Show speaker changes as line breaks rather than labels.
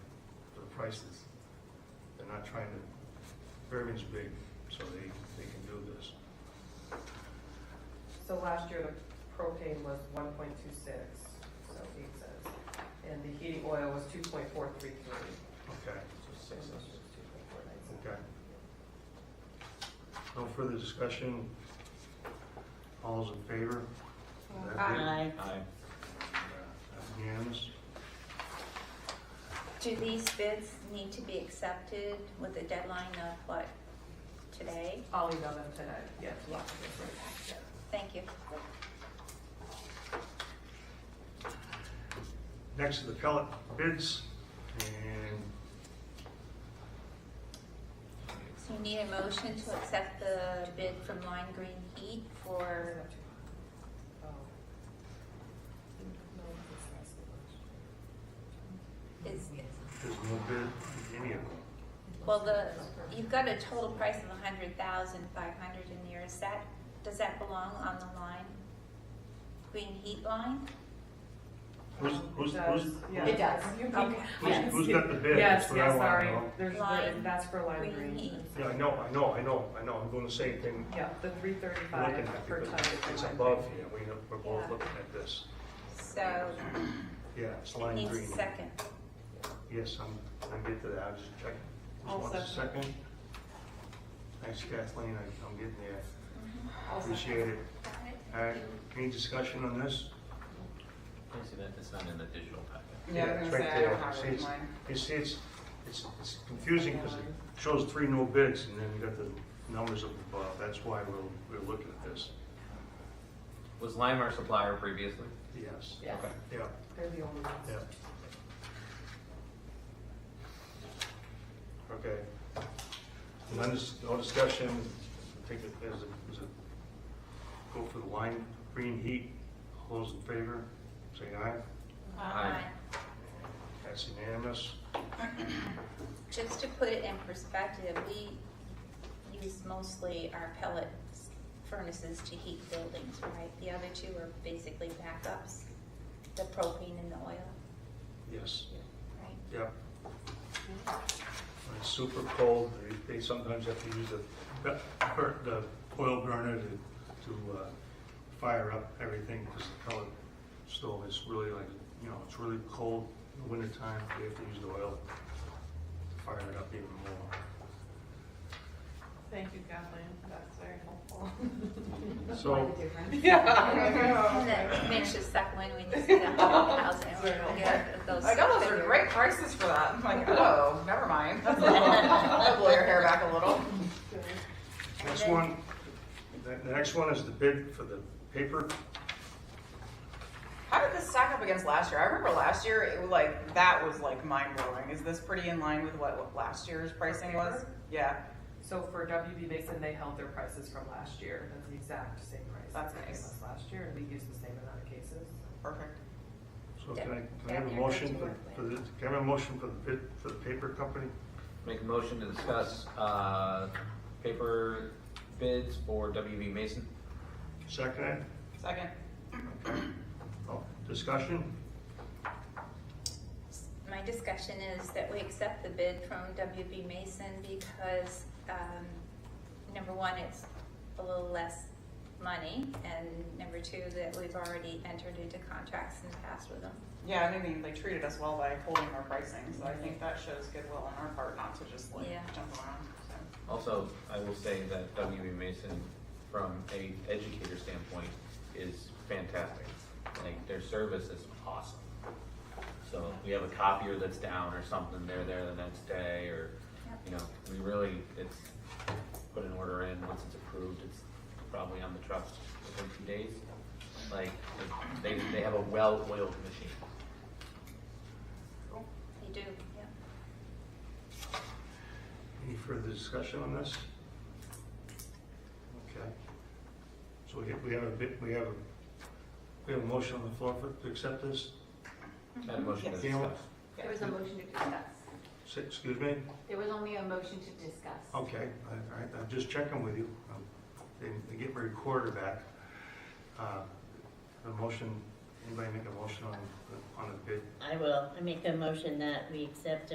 prices. They're not trying to, Fairview's big, so they, they can do this.
So last year, the propane was one point two six, so eight cents, and the heating oil was two point four three three.
Okay, okay. No further discussion? All's in favor?
Aye.
Aye.
That's Unanimous?
Do these bids need to be accepted with a deadline of what, today?
I'll email them tonight, yes, lots of
Thank you.
Next are the pellet bids, and
So you need a motion to accept the bid from Lime Green Heat for, is,
there's no bid in any of them.
well, the, e- you've got a total price of a hundred thousand five hundred in there, is that, does that belong on the line? Green Heat line?
Who's, who's, who's,
It does.
You can,
Okay.
who's,
yes.
who's got the bid?
Yes,
That's what I
yes,
wanna
sorry,
know.
there's, the-
Lime
that's for lime
green heat.
green.
Yeah, I know, I know, I know, I know, I'm doing the same thing
Yeah, the three
we're looking
thirty-five
at,
per
because
ton. is the
it's
lime
above
green.
here, we, know- we're both looking at this.
So,
Yeah, it's
it
lime
needs a
green.
second.
Yes, I'm, I'll get to that, I was just checking. Just
I'll
want a
second.
second. Thanks Kathleen, I- I'm getting there,
Mm-hmm.
Also-
appreciate it.
Got it?
All right, any discussion on this?
Can you see that? It's not in the digital packet.
Yeah, I was
it's
gonna
right
say, I don't
there.
have
See,
it in
it's-
mine.
You see, it's, it's, it's confusing because it shows three no bids and then you got the numbers up above, that's why we're, we're looking at this.
Was Lime our supplier previously?
Yes,
Yes,
Okay.
yeah,
they're the only ones.
yeah. Okay. And then this, no discussion, take it as a, as a, go for the line, green heat, all those in favor, say aye,
Aye.
that's unanimous.
Just to put it in perspective, we use mostly our pellet furnaces to heat buildings, right? The other two are basically backups, the propane and the oil,
Yes,
right?
yep. When it's super cold, they, they sometimes have to use the, the oil burner to, to, uh, fire up everything because the pellet stove is really like, you know, it's really cold in the wintertime, they have to use the oil to fire it up even more.
Thank you, Kathleen, that's very helpful.
So,
And then manage to suck one when you see that whole house. I
Very helpful.
forget those-
I know those are great prices for that. I'm like, oh, never mind. I'll blow your hair back a little.
And
next
then-
one, the, the next one is the bid for the paper.
How did this stack up against last year? I remember last year, it was like that was like mind blowing. Is this pretty in line with what, what last year's pricing was? Yeah,
So for WB Mason, they held their prices from last year, that's the exact same price.
That's
that they
nice.
gave us Last year, and we used the same amount of cases.
perfect.
So can I, can I have a
Yeah,
motion
they're
for,
good to work
for the, can I have a motion for the bid, for the paper company?
Make a motion to discuss, uh, paper bids for WB Mason.
Second it?
Second.
Oh, Discussion?
My discussion is that we accept the bid from WB Mason because, um, number one, it's a little less money, and number two, that we've already entered into contracts in the past with them.
Yeah, and I mean, they treated us well by holding our pricing, so I think that shows goodwill on our part not to just like
Yeah.
jump around. So.
Also, I will say that WB Mason, from a educator standpoint, is fantastic. Like, their service is awesome. So if we have a copier that's down or something, they're there the next day, or, you know, we really, it's, put an order in, once it's approved, it's probably on the truck within two days. Like, they, they have a well-oiled machine.
They do, yeah.
Any further discussion on this? Okay. So we have, we have a bit, we have a, we have a motion on the floor for, to accept this?
Had a motion to
Yes.
discuss.
Yeah.
There was a motion to discuss.
Say- Excuse me?
There was only a motion to discuss.
Okay, all right, I'm just checking with you. Um, They, they get my recorder back. Uh, The motion, anybody make a motion on, the- on the bid
I will. I make the motion that we accept